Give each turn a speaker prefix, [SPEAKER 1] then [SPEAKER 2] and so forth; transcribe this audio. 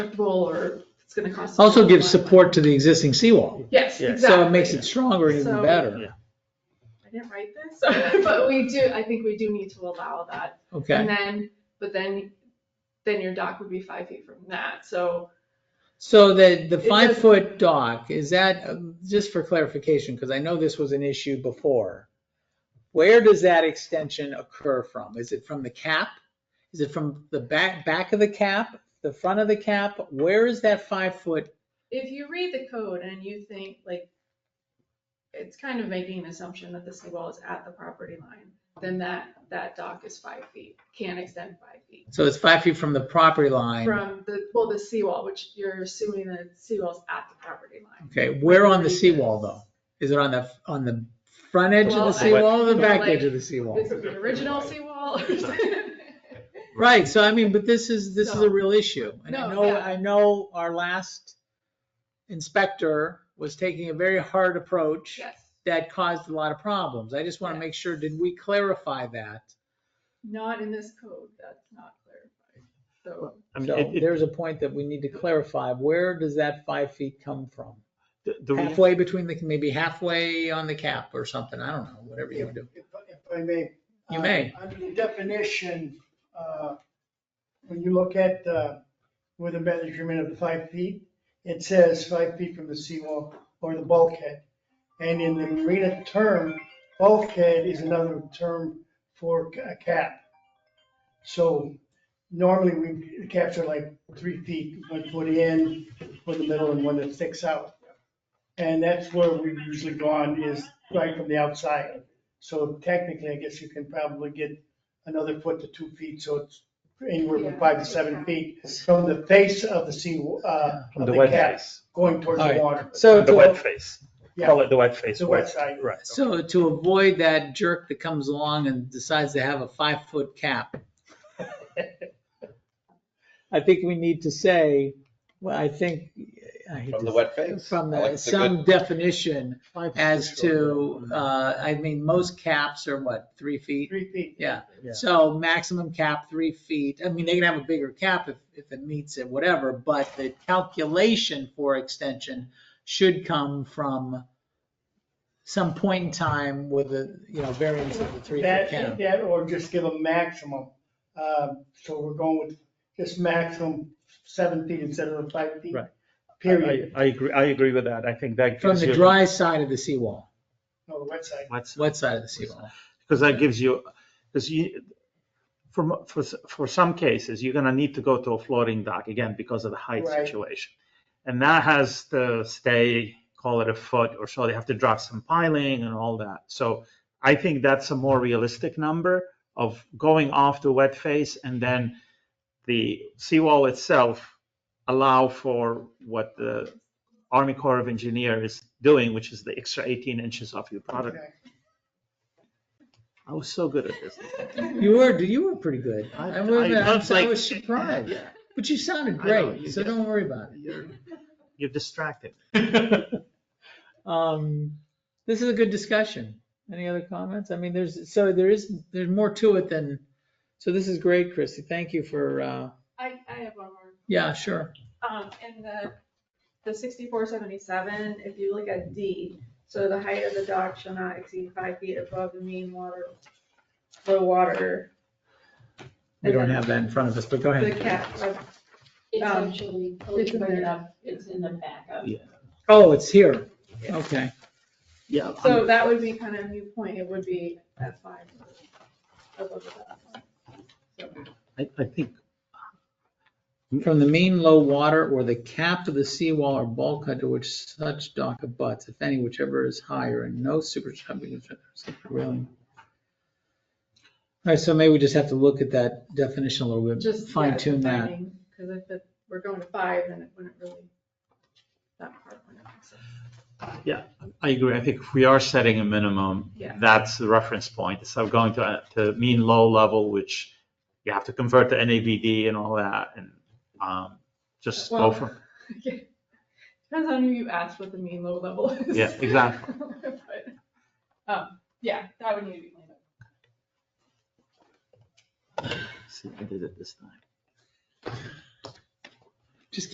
[SPEAKER 1] acceptable or it's gonna cost.
[SPEAKER 2] Also gives support to the existing seawall.
[SPEAKER 1] Yes,
[SPEAKER 3] Yeah. So it
[SPEAKER 1] exactly.
[SPEAKER 2] So it makes it stronger and even
[SPEAKER 1] So-
[SPEAKER 2] better.
[SPEAKER 1] I didn't write this, but we do, I think we do need to allow that. And
[SPEAKER 2] Okay.
[SPEAKER 1] then, but then, then your dock would be five feet from that, so
[SPEAKER 2] So the, the
[SPEAKER 1] It
[SPEAKER 2] five
[SPEAKER 1] does-
[SPEAKER 2] foot dock, is that, um, just for clarification, because I know this was an issue before. Where does that extension occur from? Is it from the cap? Is it from the back, back of the cap, the front of the cap? Where is that five foot?
[SPEAKER 1] if you read the code and you think like, it's kind of making an assumption that the seawall is at the property line, then that, that dock is five feet, can extend five feet.
[SPEAKER 2] So it's five feet from the property line.
[SPEAKER 1] From the, well, the seawall, which you're assuming the seawall's at the property line.
[SPEAKER 2] Okay, where on the seawall though? Is it on the, on the front edge of
[SPEAKER 1] Well,
[SPEAKER 2] the
[SPEAKER 1] I-
[SPEAKER 2] seawall or the
[SPEAKER 1] Well,
[SPEAKER 2] back
[SPEAKER 1] like-
[SPEAKER 2] edge of the seawall?
[SPEAKER 1] This is the original seawall.
[SPEAKER 2] Right, so I mean, but this is, this is
[SPEAKER 1] No.
[SPEAKER 2] a real issue. And I
[SPEAKER 1] No,
[SPEAKER 2] know,
[SPEAKER 1] yeah.
[SPEAKER 2] I know our last inspector was taking a very hard approach
[SPEAKER 1] Yes.
[SPEAKER 2] that caused a lot of problems. I just want to
[SPEAKER 1] Yeah.
[SPEAKER 2] make sure, did we clarify that?
[SPEAKER 1] Not in this code, that's not clarified. So,
[SPEAKER 3] I mean,
[SPEAKER 2] So
[SPEAKER 3] it- it-
[SPEAKER 2] there's a point that we need to clarify. Where does that five feet come from?
[SPEAKER 3] the- the re-
[SPEAKER 2] Halfway between the, maybe halfway on the cap or something. I don't know, whatever you
[SPEAKER 4] If
[SPEAKER 2] do.
[SPEAKER 4] if- if I may.
[SPEAKER 2] You
[SPEAKER 4] uh,
[SPEAKER 2] may.
[SPEAKER 4] Under the definition, uh, when you look at uh, with a measurement of five feet, it says five feet from the seawall or the bulkhead. And in the marina term, bulkhead is another term for a cap. So normally we caps are like three feet, one foot in, one in the middle and one that sticks out. And that's where we've usually gone is right from the outside. So technically, I guess you can probably get another foot to two feet, so it's anywhere from five to seven feet from the face of the sea, uh,
[SPEAKER 3] from
[SPEAKER 4] of
[SPEAKER 3] the
[SPEAKER 4] the
[SPEAKER 3] wet
[SPEAKER 4] cap
[SPEAKER 3] face,
[SPEAKER 4] going towards the
[SPEAKER 2] Alright.
[SPEAKER 4] water.
[SPEAKER 2] So
[SPEAKER 3] the
[SPEAKER 2] to-
[SPEAKER 3] wet face,
[SPEAKER 4] Yeah,
[SPEAKER 3] call it the wet face.
[SPEAKER 4] the wet side.
[SPEAKER 3] Right.
[SPEAKER 2] So to avoid that jerk that comes along and decides to have a five foot cap. I think we need to say, well, I think. I hate
[SPEAKER 5] From
[SPEAKER 2] to
[SPEAKER 5] the wet
[SPEAKER 2] say-
[SPEAKER 5] face?
[SPEAKER 2] From
[SPEAKER 5] I
[SPEAKER 2] the-
[SPEAKER 5] like the
[SPEAKER 2] some
[SPEAKER 5] good-
[SPEAKER 2] definition as to,
[SPEAKER 3] sure.
[SPEAKER 2] uh, I mean, most caps are what, three feet?
[SPEAKER 4] Three feet.
[SPEAKER 2] Yeah,
[SPEAKER 3] Yeah.
[SPEAKER 2] so maximum cap, three feet. I mean, they can have a bigger cap if, if it meets it, whatever, but the calculation for extension should come from some point in time with a, you know, variance of the three foot
[SPEAKER 4] That,
[SPEAKER 2] cap.
[SPEAKER 4] that, or just give a maximum. Um, So we're going with just maximum seven feet instead of the five feet.
[SPEAKER 3] Right.
[SPEAKER 4] Period.
[SPEAKER 3] I, I agree, I agree with that. I think that
[SPEAKER 2] From
[SPEAKER 3] gives
[SPEAKER 2] the
[SPEAKER 3] you,
[SPEAKER 2] dry side of the seawall,
[SPEAKER 4] No, the wet side.
[SPEAKER 2] wet side of the seawall.
[SPEAKER 3] because that gives you, because you, for, mo- for, s- for some cases, you're gonna need to go to a floating dock again because of the height
[SPEAKER 4] Right.
[SPEAKER 3] situation. And that has to stay, call it a foot or so. They have to drop some piling and all that. So I think that's a more realistic number of going off the wet face and then the seawall itself allow for what the Army Corps of Engineer is doing, which is the extra 18 inches off your product.
[SPEAKER 4] Okay.
[SPEAKER 3] I was so good at this.
[SPEAKER 2] You were, you were pretty good.
[SPEAKER 3] I-
[SPEAKER 2] I was,
[SPEAKER 3] I- I
[SPEAKER 2] I'm
[SPEAKER 3] was
[SPEAKER 2] so- I
[SPEAKER 3] like-
[SPEAKER 2] was surprised,
[SPEAKER 3] Yeah,
[SPEAKER 2] but you sounded
[SPEAKER 3] I know,
[SPEAKER 2] great,
[SPEAKER 3] you
[SPEAKER 2] so
[SPEAKER 3] did.
[SPEAKER 2] don't worry about it.
[SPEAKER 3] You're you're distracted.
[SPEAKER 2] Um, this is a good discussion. Any other comments? I mean, there's, so there is, there's more to it than, so this is great, Christy. Thank you for, uh,
[SPEAKER 1] I, I have one more.
[SPEAKER 2] yeah, sure.
[SPEAKER 1] Um, in the, the sixty-four seventy-seven, if you look at D, so the height of the dock shall not exceed five feet above the mean water, low water.
[SPEAKER 2] We don't have that in front of us, but go
[SPEAKER 1] The
[SPEAKER 2] ahead.
[SPEAKER 1] cap of
[SPEAKER 6] It's
[SPEAKER 1] Um,
[SPEAKER 6] actually, oh,
[SPEAKER 1] it's
[SPEAKER 6] you
[SPEAKER 1] in
[SPEAKER 6] bring it
[SPEAKER 1] there.
[SPEAKER 6] up, it's in the backup.
[SPEAKER 2] Oh, it's here. Okay.
[SPEAKER 3] Yeah.
[SPEAKER 1] So that would be kind of a new point, it would be at five. above the
[SPEAKER 3] I, I think,
[SPEAKER 2] From the mean low water or the cap of the seawall or bulkhead to which such dock abuts, if any, whichever is higher and no superstructure railing. All right, so maybe we just have to look at that definition a little bit,
[SPEAKER 1] Just.
[SPEAKER 2] fine tune that.
[SPEAKER 1] Because if it, we're going to five, then it wouldn't really, that part wouldn't make sense.
[SPEAKER 3] I agree. I think if we are setting a minimum,
[SPEAKER 1] Yeah.
[SPEAKER 3] that's the reference point. So going to, uh, to mean low level, which you have to convert to NAVD and all that and, um, just go
[SPEAKER 1] Well-
[SPEAKER 3] from,
[SPEAKER 1] Depends on who you ask what the mean low level is.
[SPEAKER 3] Yeah, exactly.
[SPEAKER 1] But, Um, yeah, that would need to be cleaned up.
[SPEAKER 3] see, I did it this time.